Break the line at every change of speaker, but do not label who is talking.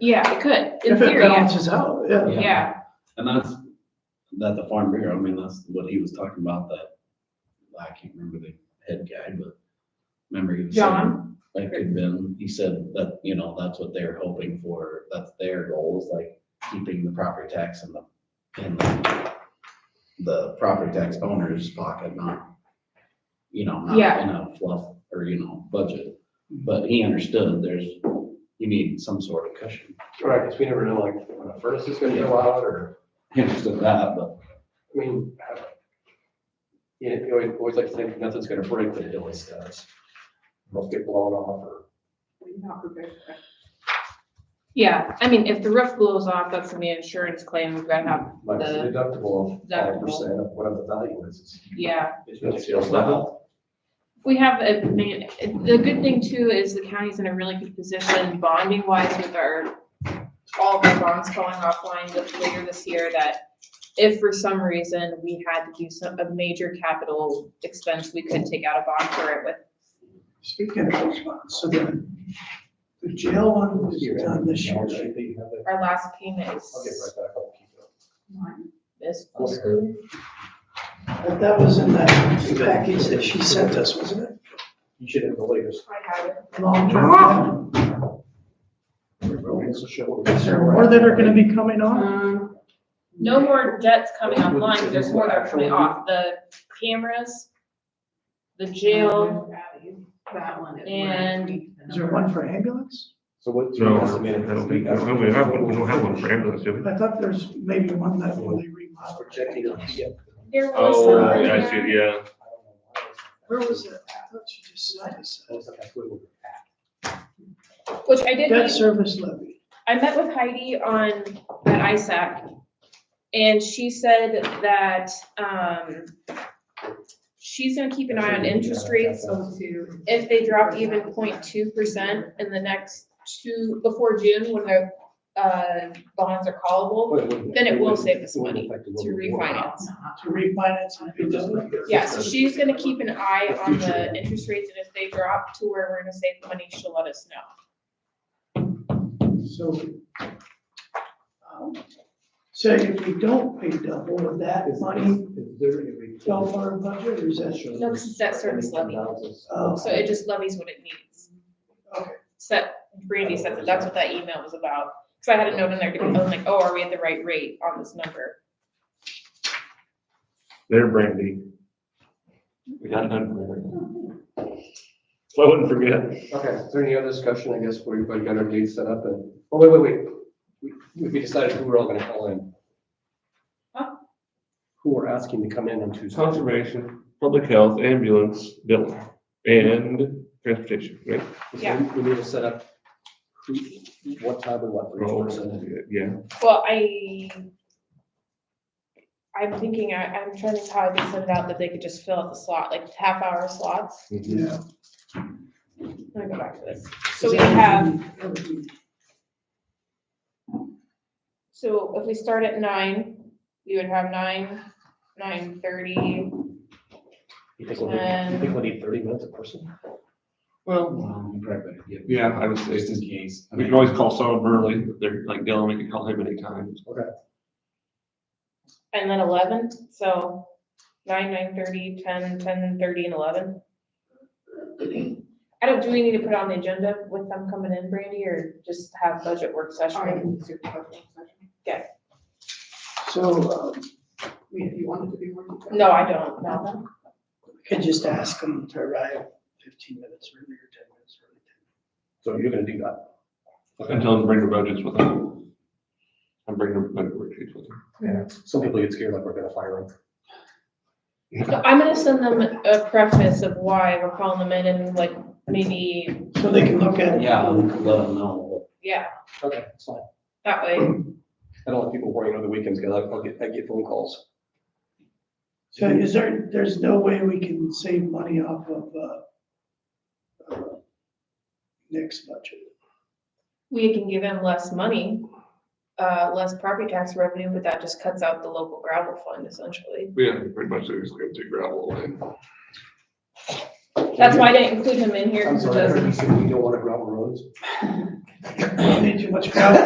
Yeah, it could, in
If it
theory, yeah.
balances out, yeah.
yeah,
And that's, that the farm bureau, I mean, that's what he was talking about, that, I can't remember the head guy, but remember he was saying,
John?
that could have been, he said that, you know, that's what they're hoping for, that's their goal, is like keeping the property tax in the, in the, the property tax owner's pocket, not, you know, not
Yeah.
in a fluff, or, you know, budget. But he understood there's, you need some sort of cushion,
Right, because we never know like when a furnace is gonna go out or,
he understood that, but
I mean, I- you know, you always, always like to think nothing's gonna break, but it always does. Must get blown off or.
yeah, I mean, if the roof blows off, that's gonna be an insurance claim, we've gotta have,
Like it's
The-
deductible of five percent of whatever the value is.
yeah.
It's it's not-
We have a, man- the good thing too is the county's in a really good position bonding wise with our, all of our bonds going offline this- later this year that if for some reason we had to do some, a major capital expense, we could take out a bond for it with,
Speaking of those ones, so the, the jail one was done this year,
Okay,
right?
right back
our last payment is.
up. Keep it up.
This
But that was in that package that she sent us, wasn't it?
You should have the latest.
I have it. Oh!
Long-term. Or
Or
that are gonna be coming on?
Um, no more debts coming online, but there's more that are coming off, the cameras, the jail,
That one. is where
And-
we-
Is there one for ambulance?
So what?
No, I don't think, I don't- we have, one- we don't have one for ambulance, do we?
I thought there's maybe one that where they remodeled.
Projecting on PF.
there was
Oh,
some. in
yeah, I see,
there.
it, yeah.
I don't know why it's-
Where was it? I thought she just sent us.
Looks like that's where we're at.
Which I did,
Debt
meet-
service levy.
I met with Heidi on, at ISAC, and she said that, um, she's gonna keep an eye on interest rates, so
Two.
if they drop even 0.2 percent in the next two, before June, when their, uh, bonds are callable, Then it will save us money to refinance.
to refinance and do this.
Yeah, so she's gonna keep an eye on the interest rates, and if they drop to where we're gonna save money, she'll let us know.
So, um, so if we don't pay double, would that money go for our budget or is that?
No, 'cause it's that service levy.
Oh,
So it just levies what it needs.
Okay.
Set, Brandy said that that's what that email was about, cause I had a note in there, I was like, oh, are we at the right rate on this number?
They're brandy,
We got done.
so I wouldn't forget.
Okay, is there any other discussion, I guess, where everybody got our dates set up and, oh, wait, wait, wait. We- We, we decided who we're all gonna call in.
Huh?
Who we're asking to come in on Tuesday.
Conservation, public health, ambulance, building, and transportation, right?
Because
Yeah.
We we need to set up who, what time and what for each person.
Yeah,
Well, I. I'm thinking, I, I'm trying to think how I could send it out that they could just fill out the slot, like half hour slots,
mhm.
Yeah.
let me go back to this. So we have So if we start at nine, we would have nine, nine thirty,
You think we'll need, you think we'll need thirty minutes a person?
Well,
Well, probably, yeah.
Yeah, I would say-
Just in case. I
we
mean,
can always call someone early, if they're like Dylan, we can call him anytime.
and then eleven, so nine, nine thirty, ten, ten thirty, and eleven. I don't, do we need to put on the agenda with them coming in, Brandy, or just have budget work
I
session?
can do the budget session.
So, um,
We, if you wanted to do one.
No, I don't, no.
I could just ask them to arrive fifteen minutes earlier, ten minutes earlier.
So you're gonna do that.
And tell them to bring their budgets with them. I'm bringing their budget worksheets with them.
Yeah, some people get scared like we're gonna fire them.
So I'm gonna send them a preface of why we're calling them in and like maybe,
So they can look at. it.
Yeah, let them know.
yeah,
Okay, that's fine.
that way.
I don't want people worrying over the weekends, because I'll get, I get phone calls.
So is there, there's no way we can save money off of, uh, uh, next budget?
we can give them less money, uh, less property tax revenue, but that just cuts out the local gravel fund essentially.
Yeah, pretty much, they're just gonna take gravel and.
That's why I didn't include him in here
I'm
because it
sorry, I
doesn't.
heard you said we don't want to gravel roads.
Need too much gravel.